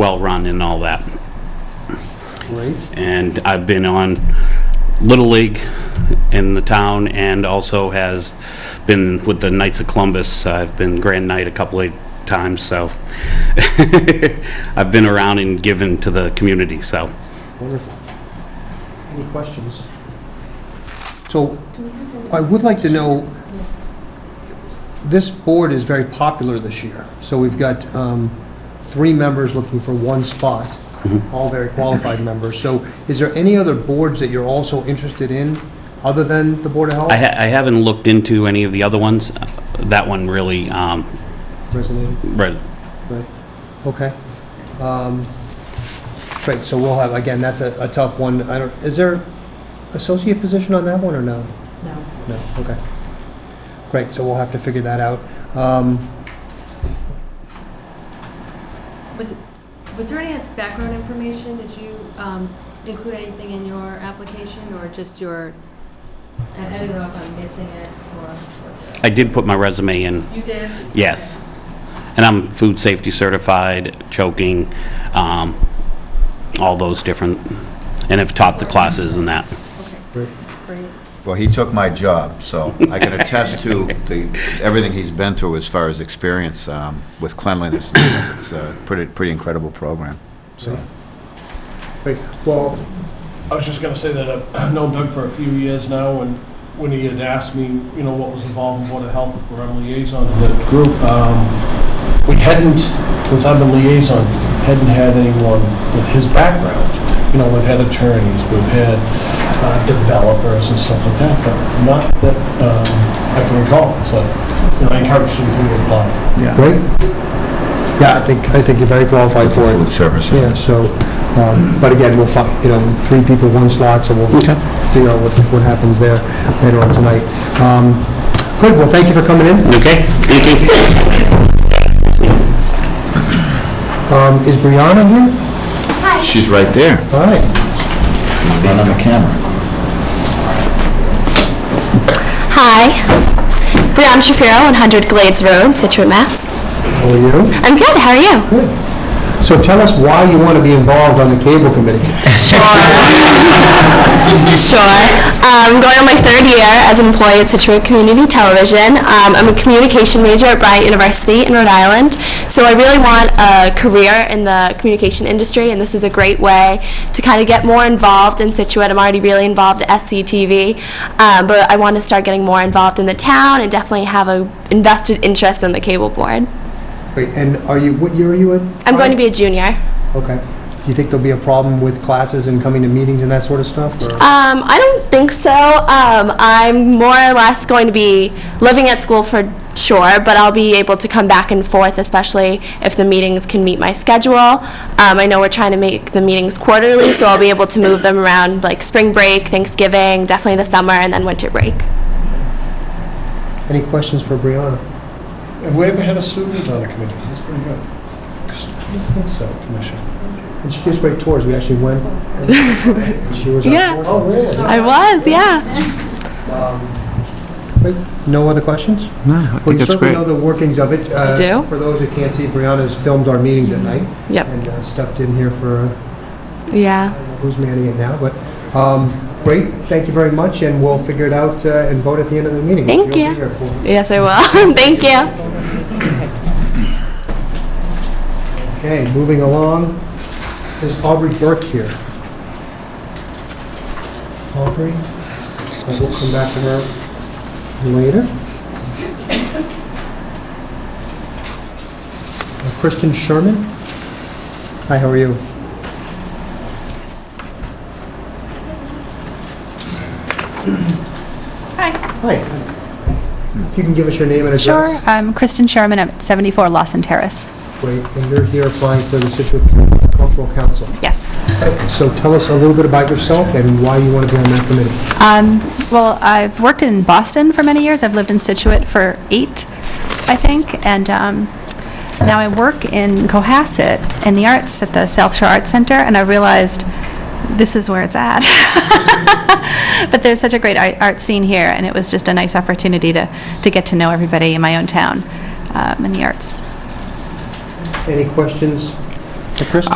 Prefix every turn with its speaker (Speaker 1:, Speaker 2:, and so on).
Speaker 1: well-run and all that.
Speaker 2: Great.
Speaker 1: And I've been on Little League in the town and also has been with the Knights of Columbus. I've been Grand Knight a couple of times, so I've been around and given to the community, so.
Speaker 2: Wonderful. Any questions? So I would like to know, this board is very popular this year. So we've got um, three members looking for one spot, all very qualified members. So is there any other boards that you're also interested in, other than the Board of Health?
Speaker 1: I ha- I haven't looked into any of the other ones. That one really, um,
Speaker 2: Resonated?
Speaker 1: re-
Speaker 2: Right, okay. Um, Great, so we'll have, again, that's a a tough one. I don't, is there associate position on that one or no?
Speaker 3: No.
Speaker 2: No, okay. Great, so we'll have to figure that out. Um,
Speaker 3: Was, was there any background information? Did you um, include anything in your application or just your, I I don't know if I'm missing it or.
Speaker 1: I did put my resume in,
Speaker 3: You did?
Speaker 1: yes. And I'm food safety certified, choking, um, all those different, and have taught the classes and that.
Speaker 3: Okay,
Speaker 2: Great.
Speaker 3: great.
Speaker 4: Well, he took my job, so I can attest to the, everything he's been through as far as experience um, with cleanliness. and stuff. It's a pretty, pretty incredible program, so.
Speaker 2: Great, well,
Speaker 5: I was just gonna say that I've known Doug for a few years now, and when he had asked me, you know, what was involved in Board of Health, where I'm liaison to the group, um, we hadn't, since I've been liaison, hadn't had anyone with his background. You know, we've had attorneys, we've had uh, developers and stuff like that, but not that um, I can recall, so, you know, I encouraged him to apply.
Speaker 4: Yeah.
Speaker 2: great. Yeah, I think, I think you're very qualified for
Speaker 4: Food
Speaker 2: it.
Speaker 4: service.
Speaker 2: Yeah, so, um, but again, we'll find, you know, three people, one slot, so we'll figure out what, what happens there later on tonight. Um, Good, well, thank you for coming in.
Speaker 1: Okay, thank you.
Speaker 2: Um, Is Brianna here?
Speaker 4: She's right there,
Speaker 2: All right.
Speaker 4: not on the camera.
Speaker 6: Hi, Brianna Shapiro, 100 Glades Road, Situate, Mass.
Speaker 2: How are you?
Speaker 6: I'm good, how are you?
Speaker 2: So tell us why you want to be involved on the cable committee.
Speaker 6: Sure. Um, going on my third year as an employee at Situate Community Television. Um, I'm a communication major at Bryant University in Rhode Island, so I really want a career in the communication industry, and this is a great way to kind of get more involved in Situate. I'm already really involved at SCTV, um, but I want to start getting more involved in the town and definitely have a invested interest in the cable board.
Speaker 2: Wait, and are you, what year are you in?
Speaker 6: I'm going to be a junior.
Speaker 2: Okay. Do you think there'll be a problem with classes and coming to meetings and that sort of stuff? or-
Speaker 6: Um, I don't think so. Um, I'm more or less going to be living at school for sure, but I'll be able to come back and forth, especially if the meetings can meet my schedule. Um, I know we're trying to make the meetings quarterly, so I'll be able to move them around like spring break, Thanksgiving, definitely the summer, and then winter break.
Speaker 2: Any questions for Brianna?
Speaker 5: Have we ever had a student on a committee? That's pretty good. I think so, Commissioner.
Speaker 2: And she gives great tours. We actually went. and She was
Speaker 6: Yeah.
Speaker 2: our tour. Oh, really?
Speaker 6: I was, yeah.
Speaker 2: Great. Um, No other questions?
Speaker 4: I
Speaker 2: Well, you certainly know the workings of it. Uh,
Speaker 6: do.
Speaker 2: For those who can't see, Brianna's filmed our meetings at night.
Speaker 6: Yep.
Speaker 2: And uh, stepped in here for, uh,
Speaker 6: Yeah.
Speaker 2: who's manning it now, but, um, great. Thank you very much, and we'll figure it out uh, and vote at the end of the meeting.
Speaker 6: Thank
Speaker 2: You'll be
Speaker 6: you.
Speaker 2: here for-
Speaker 6: Yes, I will. Thank you.
Speaker 2: Okay, moving along, is Aubrey Burke here? Aubrey, and we'll come back to her later. Uh, Kristen Sherman? Hi, how are you? Hi. Hi. If you can give us your name and address.
Speaker 7: Sure. I'm Kristen Sherman. I'm at 74 Lawson Terrace.
Speaker 2: Great, and you're here applying for the Situate Cultural Council.
Speaker 7: Yes.
Speaker 2: So tell us a little bit about yourself and why you want to be on that committee.
Speaker 7: Um, Well, I've worked in Boston for many years. I've lived in Situate for eight, I think, and um, now I work in Cohasset in the arts at the South Shore Arts Center, and I realized this is where it's at. But there's such a great ar- art scene here, and it was just a nice opportunity to to get to know everybody in my own town um, in the arts.
Speaker 2: Any questions to Christie.